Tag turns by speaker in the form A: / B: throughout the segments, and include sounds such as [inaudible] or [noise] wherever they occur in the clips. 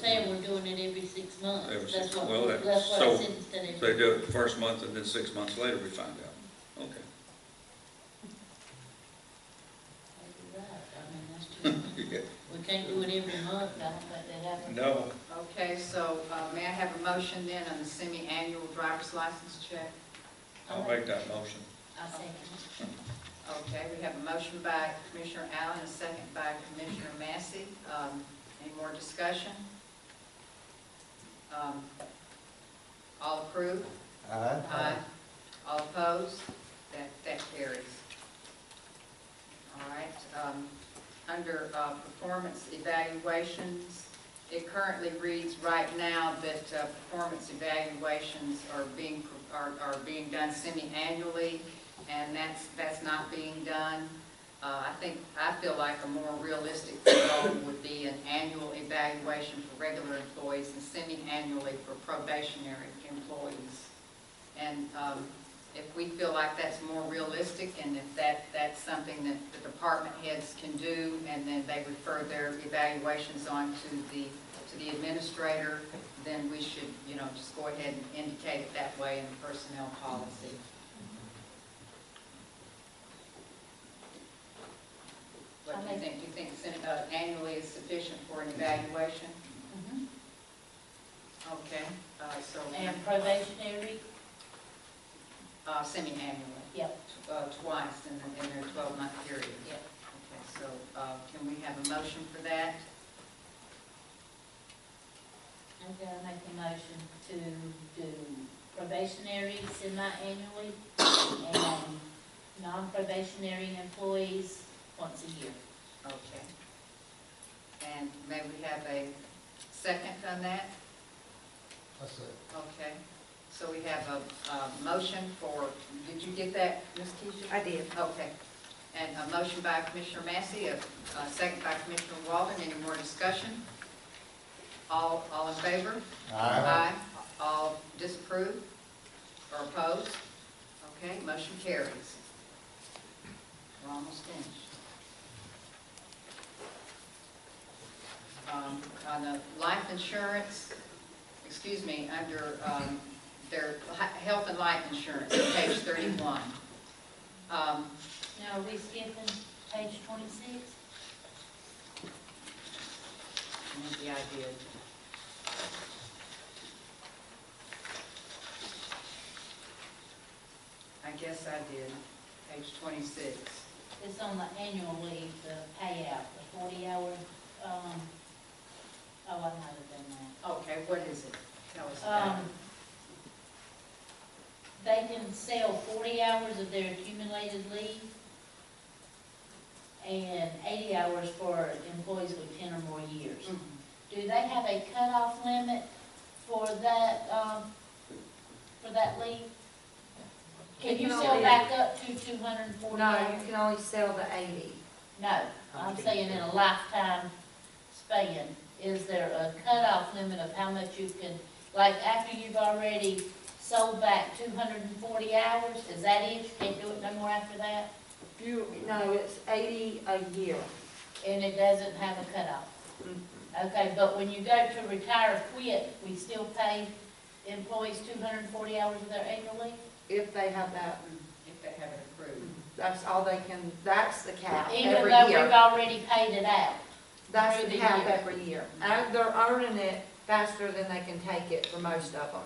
A: Saying we're doing it every six
B: Every
A: months,
B: six-
A: that's what,
B: well, that-
A: that's what
B: so-
A: I said instead of.
B: So they do it the first month, and then six months later, we find out. Okay.
A: You're right, I mean, that's too,
B: [laughs] Yeah.
A: we can't do it every month, I don't think that happens.
B: No,
C: Okay, so uh, may I have a motion then on the semi-annual driver's license check?
B: I'll make that motion.
A: I second.
C: Okay, we have a motion by Commissioner Allen, a second by Commissioner Massey. Um, Any more discussion? Um, All approve?
D: Aye.
C: All opposed? That, that carries. All right, um, under, uh, performance evaluations, it currently reads right now that, uh, performance evaluations are being, are, are being done semi-annually, and that's, that's not being done. Uh, I think, I feel like a more realistic goal would be an annual evaluation for regular employees and semi-annually for probationary employees. And um, if we feel like that's more realistic and if that, that's something that the department heads can do and then they refer their evaluations on to the, to the administrator, then we should, you know, just go ahead and indicate it that way in the personnel policy. What do you think? Do you think sen- uh, annually is sufficient for an evaluation?
A: Mhm.
C: Okay, uh, so,
A: And probationary,
C: uh, semi-annually.
A: yep,
C: uh, twice in the- in their 12-month period.
A: yep.
C: Okay, so uh, can we have a motion for that?
A: I'm gonna make a motion to do probationary semi-annually and non-probationary employees once a year.
C: Okay. And may we have a second on that?
D: That's it.
C: Okay, so we have a uh, motion for, did you get that, Ms. Keisha?
E: I did.
C: Okay, and a motion by Commissioner Massey, a a second by Commissioner Walden, any more discussion? All, all in favor? Aye. All disapprove or oppose? Okay, motion carries. We're almost finished. Um, On the life insurance, excuse me, under um, their hi- health and life insurance, page 31. Um,
A: Now, are we skipping page twenty-six?
C: What was the idea? I guess I did, page 26.
A: It's on the annual leave, the payout, the forty-hour, um, oh, I might have done that.
C: Okay, what is it? Tell us about
A: Um,
C: it.
A: They can sell forty hours of their accumulated leave and eighty hours for employees with ten or more years.
C: Mhm.
A: Do they have a cutoff limit for that, um, for that leave? Can you sell back up to two hundred and forty
E: No,
A: hours?
E: you can only sell the eighty.
A: No, I'm saying in a lifetime span, is there a cutoff limit of how much you can, like, after you've already sold back two hundred and forty hours, is that it? You can't do it no more after that?
E: You, no, it's eighty a year.
A: And it doesn't have a cutoff?
E: Mm-hmm.
A: Okay, but when you go to retire, or quit, we still pay employees two hundred and forty hours of their annual leave?
E: If they have that,
C: [clears throat] If they have it approved.
E: that's all they can, that's the cap
A: Even
E: every
A: though we've
E: year.
A: already paid it out?
E: That's
A: through
E: the
A: the
E: cap
A: year.
E: every year. And they're earning it faster than they can take it for most of them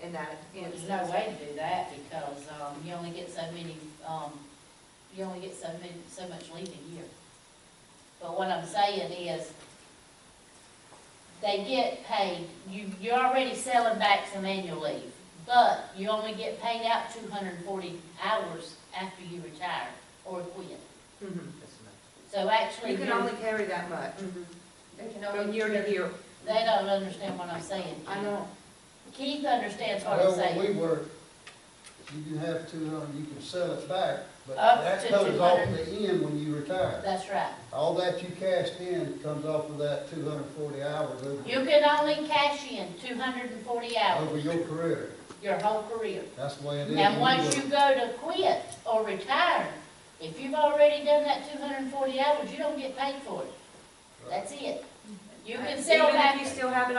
E: in that
A: Well, There's
E: instance.
A: no way to do that because, um, you only get so many, um, you only get so many, so much leave a year. But what I'm saying is, they get paid, you, you're already selling back some annual leave, but you only get paid out two hundred and forty hours after you retire or quit.
E: Mhm.
A: So actually,
E: You can
A: you're-
E: only carry that much
C: They can
E: from
C: only,
E: year to year.
A: they don't understand what I'm saying.
E: I know.
A: Keith understands what I'm
D: Well,
A: saying.
D: when we were, you can have two hundred, you can sell it back, but
A: Up
D: that
A: to
D: comes off
A: 200.
D: the end when you retire.
A: That's right.
D: All that you cashed in comes off of that two hundred and forty hours
A: You
D: over,
A: can only cash in two hundred and forty hours.
D: over your career.
A: your whole career.
D: That's the way it is.
A: And
D: when
A: once you
D: work.
A: go to quit or retire, if you've already done that two hundred and forty hours, you don't get paid for it. That's it.
F: You can sell back.
E: Even if you still have it